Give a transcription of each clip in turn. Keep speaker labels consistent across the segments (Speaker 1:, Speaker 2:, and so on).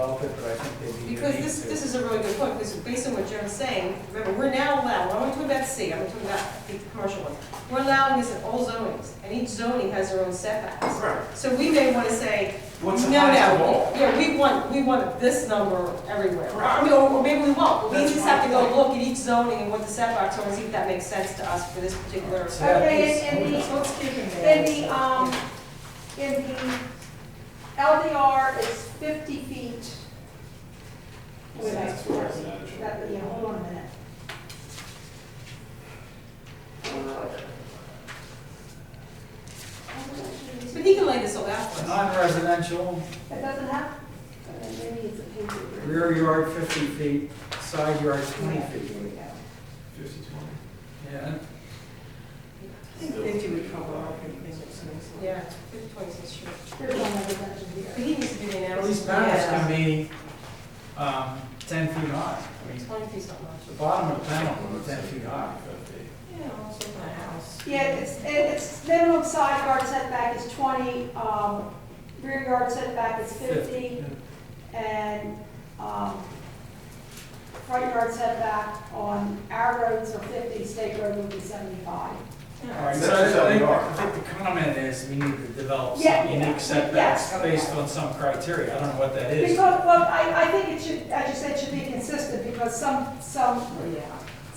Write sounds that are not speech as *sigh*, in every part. Speaker 1: help it, but I think they'd be
Speaker 2: Because
Speaker 1: unique
Speaker 2: this,
Speaker 1: to-
Speaker 2: this is a really good point, because based on what Jim's saying, remember, we're now allowed, I'm not talking about C, I'm talking about the commercial one. We're allowing this in all zonings, and each zoning has their own setbacks.
Speaker 3: Right.
Speaker 2: So we may want to say, no,
Speaker 3: What's
Speaker 2: no,
Speaker 3: the highest of all?
Speaker 2: yeah, we want, we want this number everywhere. I
Speaker 3: Correct.
Speaker 2: mean, or or maybe we won't, but we
Speaker 3: That's
Speaker 2: just
Speaker 3: my
Speaker 2: have to go
Speaker 3: point.
Speaker 2: look at each zoning and what the setbacks are, and see if that makes sense to us for this particular.
Speaker 1: So that
Speaker 4: Okay,
Speaker 1: piece-
Speaker 4: and in
Speaker 2: So let's keep it
Speaker 4: the,
Speaker 2: there.
Speaker 4: in the, um, in the LDR is fifty feet. Wait, that's forty, that, yeah, hold on a minute.
Speaker 2: But he can lay this all out for us.
Speaker 1: Non-residential,
Speaker 4: It doesn't have, uh, maybe it's a paper.
Speaker 1: rear yard fifty feet, side yard twenty feet.
Speaker 4: Here we go.
Speaker 3: Fifty, twenty.
Speaker 1: Yeah,
Speaker 5: Fifty would cover all the things that's missing.
Speaker 2: Yeah, fifty points is true.
Speaker 4: There's one other dimension
Speaker 2: But
Speaker 4: here.
Speaker 2: he needs to do the
Speaker 1: at
Speaker 2: analysis.
Speaker 1: least panels can be, um, ten feet high. I mean,
Speaker 2: Twenty feet's not much.
Speaker 1: the bottom of the panel is ten feet high.
Speaker 2: Yeah, also my house.
Speaker 4: Yeah, it's, it- it's minimum side yard setback is twenty, um, rear yard setback is fifty, and, um, front yard setback on our roads are fifty, state road would be seventy-five.
Speaker 1: All right,
Speaker 2: Yeah.
Speaker 1: so I think, I think the comment is we need to develop
Speaker 4: Yeah,
Speaker 1: some
Speaker 4: yeah,
Speaker 1: unique setbacks
Speaker 4: yes.
Speaker 1: based on some criteria. I don't know what that is.
Speaker 4: Because, well, I, I think it should, as you said, should be consistent, because some, some
Speaker 1: Oh,
Speaker 5: Yeah.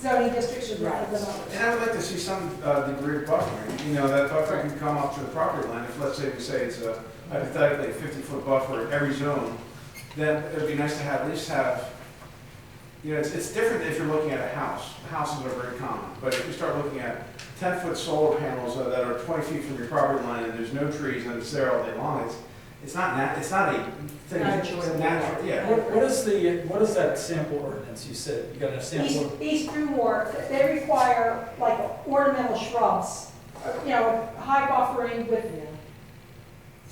Speaker 4: zoning districts should rather than
Speaker 3: And
Speaker 4: others.
Speaker 3: I would like to see some uh, degree of buffering, you know, that buffer can come up to the property line, if let's say we say it's a hypothetically fifty-foot buffer in every zone, then it'd be nice to have, at least have, you know, it's, it's different if you're looking at a house, houses are very common, but if you start looking at ten-foot solar panels that are twenty feet from your property line, and there's no trees, and it's there all day long, it's, it's not nat, it's not a thing,
Speaker 2: Not
Speaker 3: it's
Speaker 2: enjoyable.
Speaker 3: natural, yeah.
Speaker 1: What, what is the, what is that sample ordinance? You said you got a
Speaker 4: East,
Speaker 1: sample.
Speaker 4: East Drewmore, they require like ornamental shrubs, uh, you know, high buffering with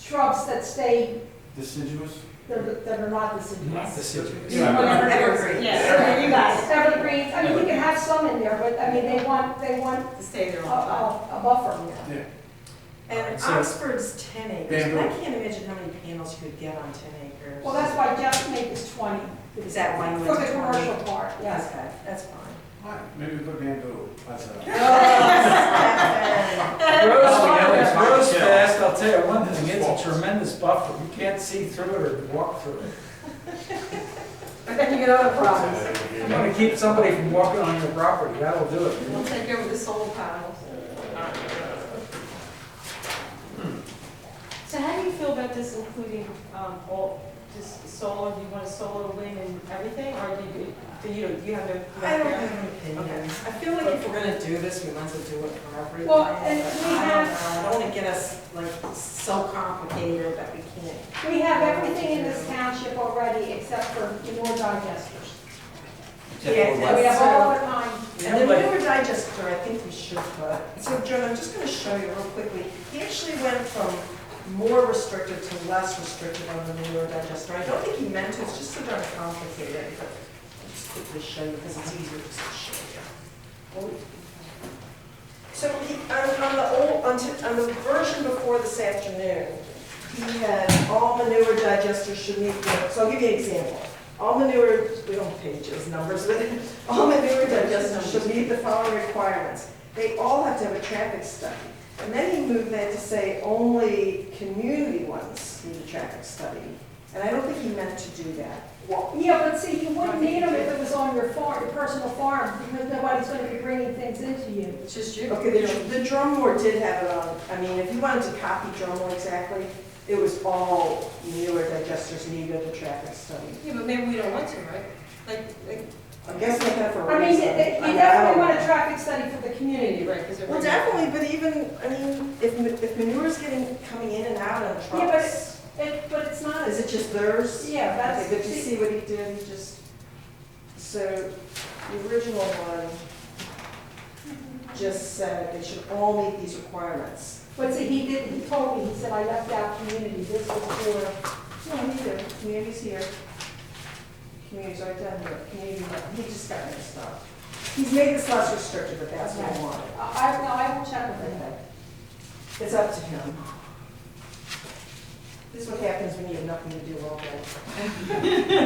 Speaker 4: shrubs that stay,
Speaker 3: Deciduous?
Speaker 4: that that are not
Speaker 1: Not
Speaker 4: deciduous.
Speaker 1: the citrus.
Speaker 3: Yeah.
Speaker 2: Whatever, evergreen, yeah, you guys,
Speaker 4: Evergreens, I mean, you can have some in there, but I mean, they want, they want
Speaker 2: to stay there
Speaker 4: a,
Speaker 2: all the time.
Speaker 4: a a buffer.
Speaker 3: Yeah.
Speaker 5: And
Speaker 1: So-
Speaker 5: Oxford's ten acres,
Speaker 3: Bamboo.
Speaker 5: I can't imagine how many panels you could get on ten acres.
Speaker 4: Well, that's why Jeff's make is twenty.
Speaker 5: Is that why you
Speaker 4: For
Speaker 5: went
Speaker 4: the
Speaker 5: to
Speaker 4: commercial part, yes.
Speaker 5: Yes, that- that's fine.
Speaker 3: Why? Maybe put bamboo, that's a.
Speaker 1: Grows
Speaker 3: yeah.
Speaker 1: grows fast, I'll tell you one thing, it's
Speaker 3: False.
Speaker 1: a tremendous buffer. You can't see through it or walk through it.
Speaker 2: *laughs* But then you get other problems.
Speaker 1: You want to keep somebody from walking on your property, that'll do it.
Speaker 2: We'll take over the solar panels. So how do you feel about this including, um, all, just solar, do you want a solar, wind and everything, or do you, do you, do you have a?
Speaker 5: I don't have an opinion. I feel like if we're gonna do this, we might as well do it for everything.
Speaker 4: Well, and we
Speaker 5: I don't
Speaker 4: have-
Speaker 5: know. I don't wanna get us like so complicated that we can't.
Speaker 4: We have everything in this township already except for indoor digesters.
Speaker 5: Yeah,
Speaker 4: And we have all other kinds.
Speaker 5: And the newer digester, I think we should put, so Joan, I'm just gonna show you real quickly. He actually went from more restrictive to less restrictive on the newer digester. I don't think he meant to, it's just so darn complicated, but I'll just quickly show you, because it's easier just to show you. Oh. So he, on, on the old, on, t- on the version before this afternoon, he had all manure digesters should meet, the- so I'll give you an example. All manure, we don't pages, numbers, but *laughs* all manure digesters should meet the following requirements. They all have to have a traffic study. And then he moved that to say only community ones need a traffic study. And I don't think he meant to do that.
Speaker 4: Well, Yeah, but see, you wouldn't need them if it was on your farm, your personal farm, because nobody's gonna be bringing things into you.
Speaker 2: It's just you.
Speaker 5: Okay, the, the Drummore did have it on, I mean, if you wanted to copy Drummore exactly, it was all newer digesters needed a traffic study.
Speaker 2: Yeah, but maybe we don't want to, right? Like, like,
Speaker 5: I guess they have a
Speaker 4: I mean,
Speaker 5: reason.
Speaker 4: you you
Speaker 5: mean, I
Speaker 4: definitely
Speaker 5: don't-
Speaker 4: want a traffic study for the community.
Speaker 2: you're right, because
Speaker 5: Well,
Speaker 2: everybody.
Speaker 5: definitely, but even, I mean, if, ma- if manure's getting, coming in and out on
Speaker 4: but
Speaker 5: trucks,
Speaker 4: It, but it's not,
Speaker 5: is it just theirs?
Speaker 4: yeah,
Speaker 5: Okay,
Speaker 4: that's.
Speaker 5: but you see what he did, he just, so the original one just said they should all meet these requirements.
Speaker 4: But see, he did, he told me, he said, I left out community, this was for,
Speaker 5: No, me too, community's here. Community's right down here, community, he just got mixed up. He's made this less restrictive, but that's what he wanted.
Speaker 4: I, I- no, I will check with him.
Speaker 5: It's up to him. This is what happens when you have nothing to do all day.